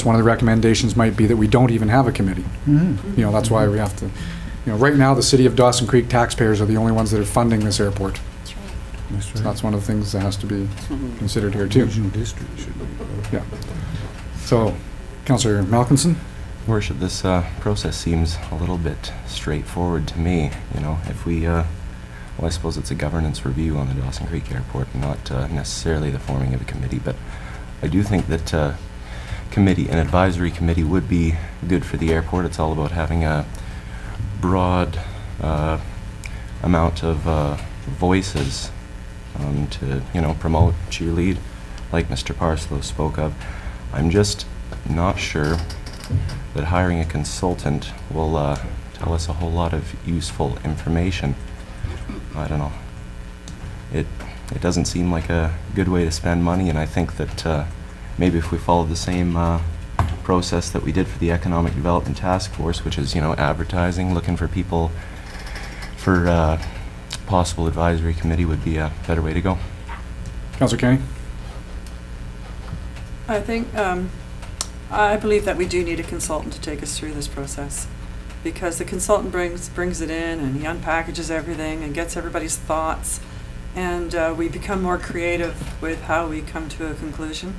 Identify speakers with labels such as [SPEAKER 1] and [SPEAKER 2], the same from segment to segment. [SPEAKER 1] It's one of the recommendations might be that we don't even have a committee. You know, that's why we have to, you know, right now, the city of Dawson Creek taxpayers are the only ones that are funding this airport. So that's one of the things that has to be
[SPEAKER 2] Mm-hmm.
[SPEAKER 1] considered here, too.
[SPEAKER 3] Regional district should be.
[SPEAKER 1] So, Counselor Malkinson?
[SPEAKER 4] Worship, this uh, process seems a little bit straightforward to me, you know, if we, uh, well, I suppose it's a governance review on the Dawson Creek Airport, not uh, necessarily the forming of a committee, but I do think that uh, committee, an advisory committee would be good for the airport. It's all about having a broad uh, amount of uh, voices um, to, you know, promote, cheerlead, like Mr. Parslow spoke of. I'm just not sure that hiring a consultant will uh, tell us a whole lot of useful information. I don't know. It, it doesn't seem like a good way to spend money, and I think that uh, maybe if we follow the same uh, process that we did for the Economic Development Task Force, which is, you know, advertising, looking for people for uh, possible advisory committee would be a better way to go.
[SPEAKER 1] Counselor Kenny?
[SPEAKER 2] I think, um, I believe that we do need a consultant to take us through this process. Because the consultant brings, brings it in and he unpackages everything and gets everybody's thoughts. And, uh, we become more creative with how we come to a conclusion.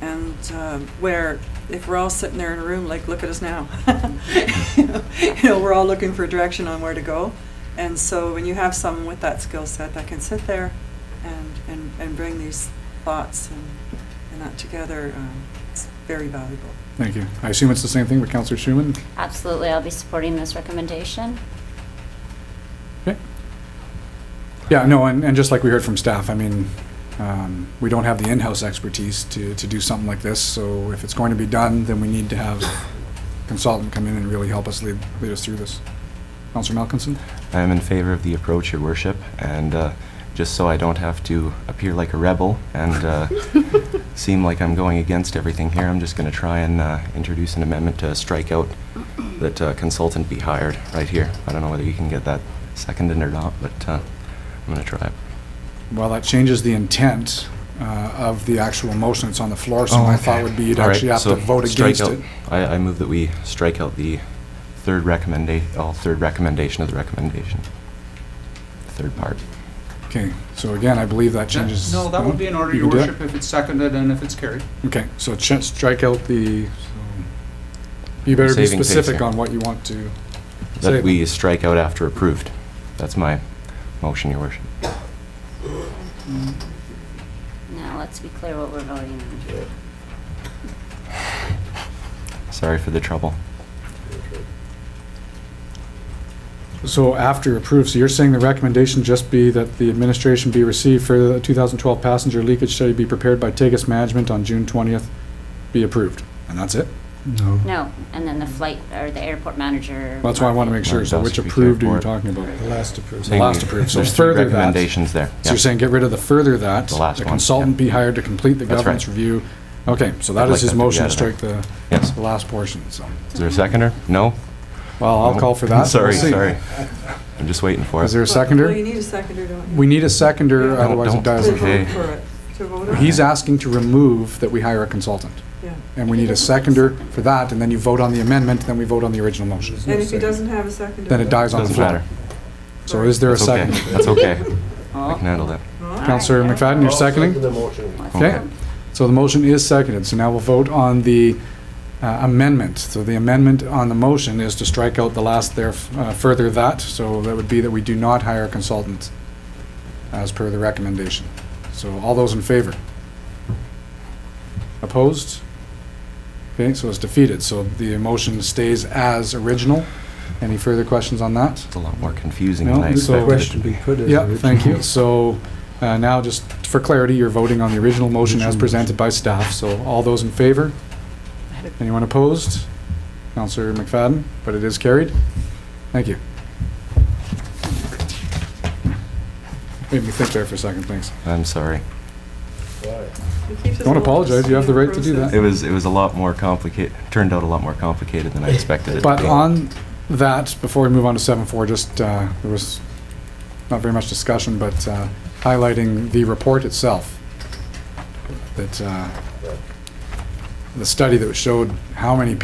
[SPEAKER 2] And, uh, where, if we're all sitting there in a room, like, look at us now. You know, we're all looking for direction on where to go. And so when you have someone with that skill set that can sit there and, and, and bring these thoughts and and that together, um, it's very valuable.
[SPEAKER 1] Thank you. I assume it's the same thing with Counselor Schumann?
[SPEAKER 5] Absolutely, I'll be supporting this recommendation.
[SPEAKER 1] Yeah, no, and, and just like we heard from staff, I mean, um, we don't have the in-house expertise to, to do something like this, so if it's going to be done, then we need to have consultant come in and really help us lead, lead us through this. Counselor Malkinson?
[SPEAKER 4] I am in favor of the approach, Your Worship, and uh, just so I don't have to appear like a rebel and uh, seem like I'm going against everything here, I'm just going to try and uh, introduce an amendment to strike out that uh, consultant be hired right here. I don't know whether you can get that seconded or not, but uh, I'm going to try it.
[SPEAKER 1] Well, that changes the intent uh, of the actual motion that's on the floor, so my thought would be you'd
[SPEAKER 4] Oh, All right,
[SPEAKER 1] actually have to
[SPEAKER 4] so
[SPEAKER 1] vote
[SPEAKER 4] strike
[SPEAKER 1] against
[SPEAKER 4] out-
[SPEAKER 1] it.
[SPEAKER 4] I I move that we strike out the third recommendation, all third recommendation of the recommendation, third part.
[SPEAKER 1] Okay, so again, I believe that changes.
[SPEAKER 6] No, that would be in order,
[SPEAKER 1] You
[SPEAKER 6] your
[SPEAKER 1] can do it?
[SPEAKER 6] worship, if it's seconded and if it's carried.
[SPEAKER 1] Okay, so ch- strike out the, you better be
[SPEAKER 4] Saving face
[SPEAKER 1] specific
[SPEAKER 4] here.
[SPEAKER 1] on what you want to. Say-
[SPEAKER 4] That we strike out after approved. That's my motion, Your Worship.
[SPEAKER 5] Now, let's be clear what we're voting on.
[SPEAKER 4] Sorry for the trouble.
[SPEAKER 1] So after approved, so you're saying the recommendation just be that the administration be received for the 2012 passenger leakage study be prepared by Tagus Management on June 20th, be approved, and that's it?
[SPEAKER 3] No.
[SPEAKER 5] No, and then the flight, or the airport manager.
[SPEAKER 1] That's why I want to make sure, so which approved are you talking about?
[SPEAKER 3] The last approved.
[SPEAKER 1] The last approved, so
[SPEAKER 4] There's three
[SPEAKER 1] further that.
[SPEAKER 4] recommendations there.
[SPEAKER 1] So you're
[SPEAKER 4] Yeah.
[SPEAKER 1] saying get rid of the further that?
[SPEAKER 4] The last
[SPEAKER 1] The
[SPEAKER 4] one,
[SPEAKER 1] consultant
[SPEAKER 4] yeah.
[SPEAKER 1] be hired to complete the
[SPEAKER 4] That's right.
[SPEAKER 1] governance review? Okay, so that
[SPEAKER 4] I'd like
[SPEAKER 1] is
[SPEAKER 4] that
[SPEAKER 1] his
[SPEAKER 4] to be
[SPEAKER 1] motion,
[SPEAKER 4] added.
[SPEAKER 1] strike the
[SPEAKER 4] Yes.
[SPEAKER 1] the last portion, so.
[SPEAKER 4] Is there a seconder? No?
[SPEAKER 1] Well, I'll
[SPEAKER 4] No.
[SPEAKER 1] call for that.
[SPEAKER 4] Oh, Sorry,
[SPEAKER 1] We'll see.
[SPEAKER 4] sorry. I'm just waiting for it.
[SPEAKER 1] Is there a
[SPEAKER 2] Well, you
[SPEAKER 1] seconder?
[SPEAKER 2] need a seconder, don't you?
[SPEAKER 1] We need a seconder,
[SPEAKER 2] No,
[SPEAKER 1] otherwise it
[SPEAKER 4] don't.
[SPEAKER 2] To
[SPEAKER 4] does.
[SPEAKER 1] doesn't.
[SPEAKER 4] Okay.
[SPEAKER 2] vote for it, to vote on it.
[SPEAKER 1] He's asking to remove that we hire a consultant,
[SPEAKER 2] Yeah.
[SPEAKER 1] and we need a seconder for that, and then you vote on the amendment, then we vote on the original motion.
[SPEAKER 2] And if he doesn't have a seconder.
[SPEAKER 1] Then it dies on the
[SPEAKER 4] Doesn't matter.
[SPEAKER 1] floor. So is there a
[SPEAKER 4] That's okay.
[SPEAKER 1] second?
[SPEAKER 4] That's okay. I
[SPEAKER 5] Oh.
[SPEAKER 4] can handle that.
[SPEAKER 2] Huh?
[SPEAKER 1] Counselor McFadden, you're seconding?
[SPEAKER 5] Let's
[SPEAKER 1] Okay.
[SPEAKER 5] vote.
[SPEAKER 1] So the motion is seconded, so now we'll vote on the uh, amendment. So the amendment on the motion is to strike out the last there, uh, further that, so that would be that we do not hire a consultant as per the recommendation. So all those in favor? Opposed? Okay, so it's defeated, so the motion stays as original. Any further questions on that?
[SPEAKER 4] It's a lot more confusing
[SPEAKER 1] No,
[SPEAKER 4] than I
[SPEAKER 1] so-
[SPEAKER 4] expected. it to
[SPEAKER 3] Question
[SPEAKER 4] be.
[SPEAKER 3] be put as.
[SPEAKER 1] Yeah, thank you.
[SPEAKER 3] original.
[SPEAKER 1] uh, So uh, now, just for clarity, you're voting on the original motion as
[SPEAKER 3] Original
[SPEAKER 1] presented by staff. So all those in favor? Anyone opposed? Counselor McFadden, but it is carried. Thank you. Made me think there for a second, thanks.
[SPEAKER 4] I'm sorry.
[SPEAKER 2] It keeps us
[SPEAKER 1] Don't
[SPEAKER 2] all
[SPEAKER 1] apologize, you have the
[SPEAKER 2] in
[SPEAKER 1] right to do that.
[SPEAKER 4] It was, it was a lot more complicated, turned out a lot more complicated than I expected it to be.
[SPEAKER 1] But on that, before we move on to seven four, just, uh, there was not very much discussion, but uh, highlighting the report itself, that uh, the study that showed how many people